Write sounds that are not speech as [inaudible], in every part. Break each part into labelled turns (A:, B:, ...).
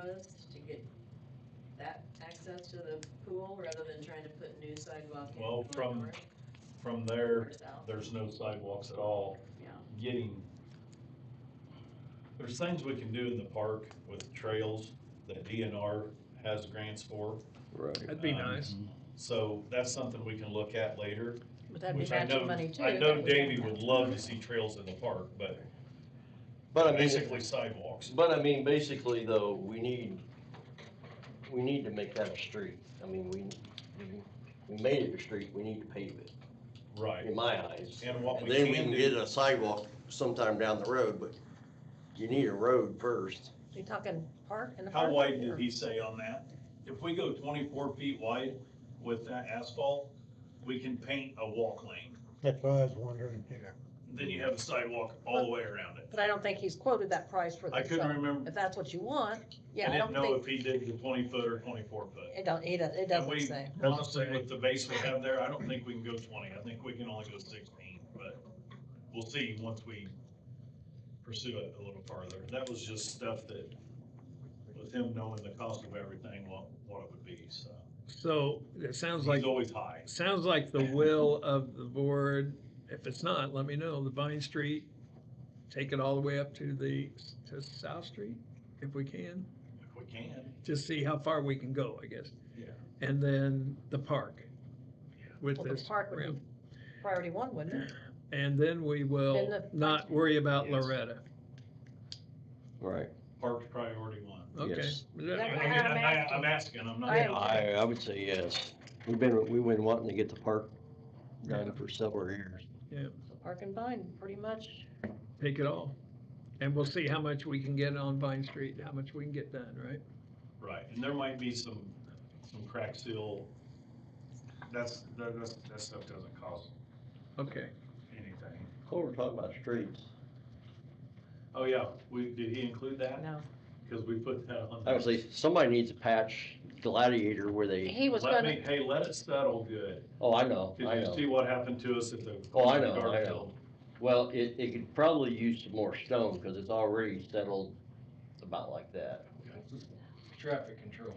A: proposed to get that access to the pool rather than trying to put new sidewalk in?
B: Well,
A: going
B: from-
A: north
B: From
A: Or
B: there,
A: south,
B: there's no sidewalks at all.
A: yeah.
B: Getting, there's things we can do in the park with trails that DNR has grants for.
C: Right.
D: That'd be
B: Um,
D: nice.
B: So that's something we can look at later.
E: But that'd be
B: which I know-
E: matching money too.
B: I know
E: that we
B: Davey
E: don't have.
B: would love to see trails in the park, but
C: But I mean,
B: basically sidewalks.
C: but I mean, basically though, we need, we need to make that a street. I mean, we, we- we made it a street, we need to pave it,
B: Right.
C: in my eyes.
B: And what
C: And
B: we
C: then we
B: can
C: can get
B: do,
C: a sidewalk sometime down the road, but you need a road first.
E: You talking park in the park?
B: how wide did
E: or-
B: he say on that? If we go twenty-four feet wide with that asphalt, we can paint a walk lane.
F: That's what I was wondering, yeah.
B: Then you have a sidewalk all the way around it.
E: But I don't think he's quoted that price for
B: I
E: the,
B: couldn't
E: so
B: remember,
E: if that's what you want,
B: I
E: yeah, I
B: didn't
E: don't
B: know
E: think,
B: if he did the twenty foot or twenty-four foot.
E: it don't, he doesn't, it
B: And
E: doesn't
B: we-
E: say.
B: Honestly, with the base we have there, I don't think we can go twenty, I think we can only go sixteen, but we'll see once we pursue it a little farther. That was just stuff that, with him knowing the cost of everything, what, what it would be, so.
D: So it sounds like,
B: He's always high.
D: sounds like the will of the board, if it's not, let me know, the Vine Street, take it all the way up to the, to South Street, if we can,
B: If we can,
D: just see how far we can go, I guess.
B: Yeah.
D: And then the park with
E: Well, the
D: this
E: park would
D: ramp.
E: be priority one, wouldn't it?
D: And then we
E: Then
D: will
E: the-
D: not worry about
B: Yes.
D: Loretta.
C: Right.
B: park's priority one.
D: Okay.
C: Yes.
D: That-
B: I
E: That's
B: mean,
E: what I'm
B: I'm, I-
E: asking.
B: I'm asking, I'm
E: I am.
B: not,
C: I, I would say yes. We've been, we've been wanting to get the park done for several years.
E: So Park and vine, pretty much.
D: Take it all. And we'll see how much we can get on Vine Street, how much we can get done, right?
B: right, and there might be some, some crack seal. That's, that, that's, that stuff doesn't cost
D: Okay.
B: anything.
C: Well, we're talking about streets.
B: Oh, yeah, we, did he include that?
E: No,
B: Because we put that on.
C: I would say somebody needs to patch Gladiator where they,
E: he was
B: Let
E: gonna,
B: me, hey, let it settle good.
C: oh, I know,
B: Did
C: I
B: you
C: know.
B: see what happened to us at the?
C: Oh, I know, I
B: Garfield?
C: Well, it, it could probably use some more stone, cause it's already settled about like that.
G: [laughs] Traffic control.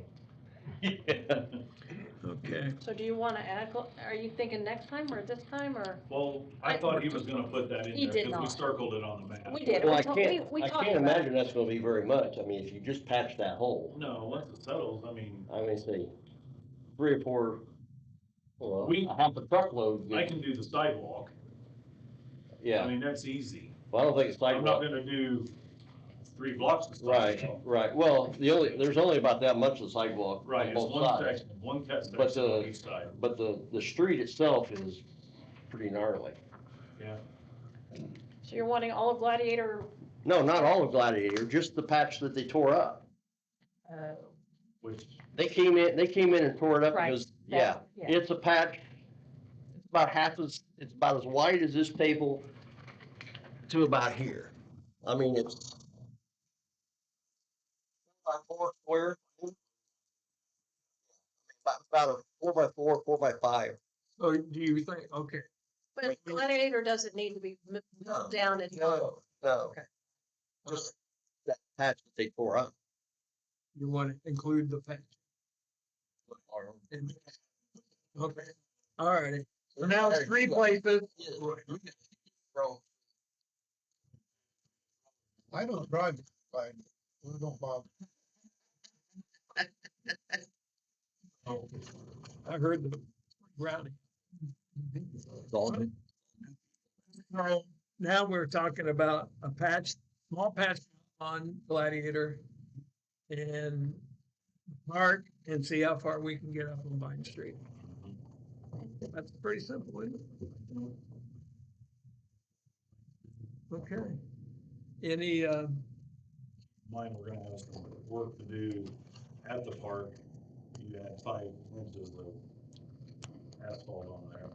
D: Okay.
E: so do you wanna add, gl- are you thinking next time or this time or?
B: [laughs] Well, I
E: I-
B: thought he was gonna put that in there.
E: He did
B: Because
E: not.
B: we circled it on the map.
E: We did,
C: Well,
E: we
C: I
E: talked, we,
C: can't,
E: we
C: I
E: talked
C: can't
E: about
C: imagine
E: it.
C: that's gonna be very much, I mean, if you just patch that hole,
B: No, once it settles, I mean,
C: I mean, say, three or four, well,
B: We-
C: a half a truckload.
B: I can do the sidewalk. I
C: Yeah,
B: mean, that's easy.
C: well, I don't think it's
B: I'm not gonna
C: sidewalk,
B: do three blocks of
C: right,
B: sidewalk.
C: right, well, the only, there's only about that much of the sidewalk
B: Right,
C: on
B: it's
C: both
B: one
C: sides.
B: section, one cut
C: But,
B: section on
C: uh,
B: each side.
C: But the, the street itself is pretty gnarly.
E: So you're wanting all of Gladiator,
C: No, not all of Gladiator, just the patch that they tore up.
E: uh,
B: Which,
C: They came in, they came in and tore it up
E: Right,
C: because, yeah,
E: that- yeah,
C: it's a patch. It's about half as, it's about as wide as this table to about here. I mean, it's. By four square. About, about a four by four, four by five.
D: So do you think, okay,
E: but Gladiator doesn't need to be m-
C: No,
E: down and.
C: No, no.
E: Okay.
D: uh,
C: Just that patch that they tore up.
D: you want to include the patch? in there? Okay, all righty.
F: So now it's three places. I don't drive, but I don't bother.
D: I heard the rowdy. Now, now we're talking about a patch, small patch on Gladiator and park and see how far we can get up on Vine Street. That's pretty simple, isn't it? Okay. Any, uh,
B: mine, we're gonna have some work to do at the park. You had five inches of asphalt on there.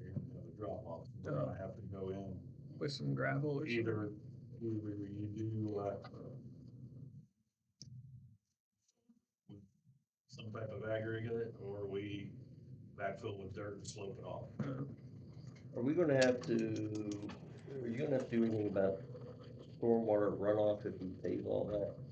B: You're gonna have a drop off. We're gonna have to go in
D: with some gravel or something?
B: either, either you do uh with some type of aggregate or we backfill with dirt and slope it off.
C: Are we gonna have to, are you gonna have to do anything about stormwater runoff if we pave all that?